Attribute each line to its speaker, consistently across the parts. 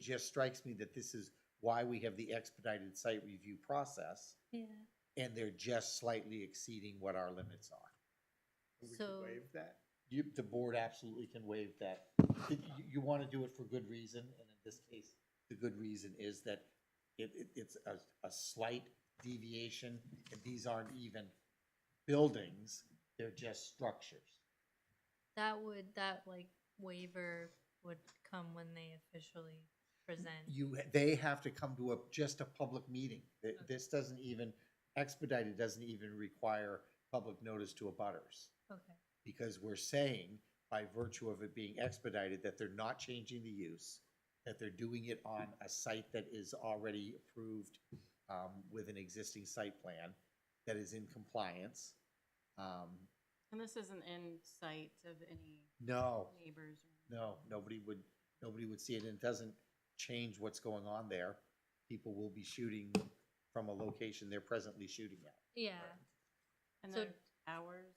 Speaker 1: just strikes me that this is why we have the expedited site review process,
Speaker 2: Yeah,
Speaker 1: and they're just slightly exceeding what our limits are.
Speaker 3: We could
Speaker 2: So-
Speaker 3: waive that?
Speaker 1: You, the board absolutely can waive that. You, you wanna do it for good reason, and in this case, the good reason is that it, it, it's a, a slight deviation, and these aren't even buildings, they're just structures.
Speaker 2: that would, that like waiver would come when they officially present.
Speaker 1: You, they have to come to a, just a public meeting. Th- This doesn't even, expedited doesn't even require public notice to abutters.
Speaker 2: Okay,
Speaker 1: because we're saying by virtue of it being expedited that they're not changing the use, that they're doing it on a site that is already approved um, with an existing site plan that is in compliance. Um,
Speaker 4: And this isn't in sight of any
Speaker 1: No,
Speaker 4: neighbors? or-
Speaker 1: no, nobody would, nobody would see it, and it doesn't change what's going on there. People will be shooting from a location they're presently shooting at.
Speaker 2: yeah,
Speaker 4: And
Speaker 2: So-
Speaker 4: their hours or anything?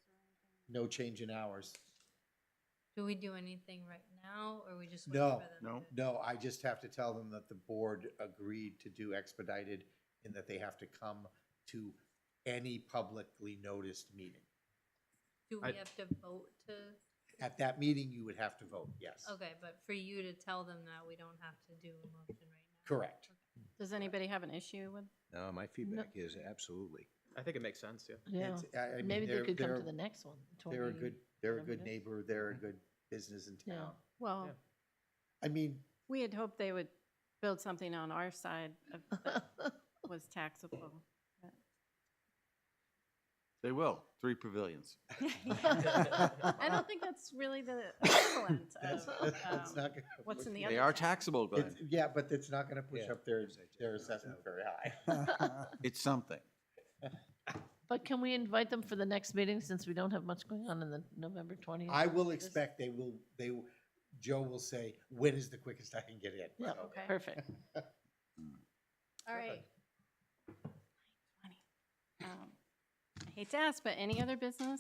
Speaker 1: No change in hours.
Speaker 2: do we do anything right now, or we just? wait
Speaker 1: No.
Speaker 2: for them
Speaker 3: No.
Speaker 2: to-
Speaker 1: No, I just have to tell them that the board agreed to do expedited and that they have to come to any publicly noticed meeting.
Speaker 2: Do
Speaker 3: I-
Speaker 2: we have to vote to,
Speaker 1: At that meeting, you would have to vote, yes.
Speaker 2: okay, but for you to tell them that, we don't have to do a motion right now?
Speaker 1: Correct.
Speaker 4: Does anybody have an issue with?
Speaker 5: No, my feedback is absolutely.
Speaker 3: I think it makes sense, yeah.
Speaker 6: Yeah,
Speaker 1: It's- I- I mean,
Speaker 6: maybe they
Speaker 1: they're-
Speaker 6: could come to
Speaker 1: they're-
Speaker 6: the next one. to our
Speaker 1: They're a
Speaker 6: meeting.
Speaker 1: good, they're a
Speaker 6: whatever it
Speaker 1: good
Speaker 6: is.
Speaker 1: neighbor, they're a good business in
Speaker 6: Yeah.
Speaker 1: town.
Speaker 4: Well,
Speaker 3: Yeah.
Speaker 1: I mean,
Speaker 4: we had hoped they would build something on our side of- that was taxable.
Speaker 7: They will. Three pavilions.
Speaker 4: I don't think that's really the equivalent
Speaker 1: that's,
Speaker 4: of
Speaker 2: Oh.
Speaker 1: that's
Speaker 4: um,
Speaker 1: not. gonna
Speaker 4: what's in the
Speaker 1: push-
Speaker 4: other.
Speaker 7: They are
Speaker 4: tax-
Speaker 7: taxable, Glenn.
Speaker 1: It's, yeah, but it's not gonna push
Speaker 5: Yeah.
Speaker 1: up their, their assessment very high.
Speaker 7: It's something.
Speaker 6: But can we invite them for the next meeting since we don't have much going on in the November twentieth?
Speaker 1: I will expect they will, they, will- Joe will say, when is the quickest I can get in?
Speaker 6: Yeah.
Speaker 1: So-
Speaker 4: Okay,
Speaker 6: Perfect.
Speaker 4: all right. Um, I hate to ask, but any other business?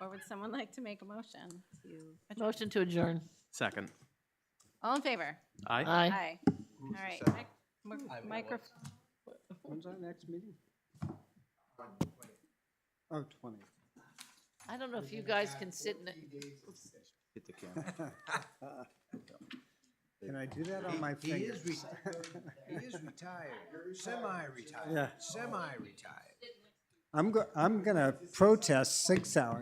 Speaker 4: Or would someone like to make a motion to? adjourn?
Speaker 6: Motion to adjourn.
Speaker 3: Second.
Speaker 4: All in favor?
Speaker 3: Aye.
Speaker 6: Aye.
Speaker 4: Aye. All right. mic- mic- Microphone.
Speaker 8: When's our next meeting? Oh, twenty.
Speaker 6: I don't know if you guys can sit in it.
Speaker 7: Hit the camera.
Speaker 8: Can I do that on my
Speaker 5: He is
Speaker 8: fingers?
Speaker 5: retired. He is retired, semi-retired,
Speaker 8: Yeah.
Speaker 5: semi-retired.
Speaker 8: I'm go, I'm gonna protest six hours.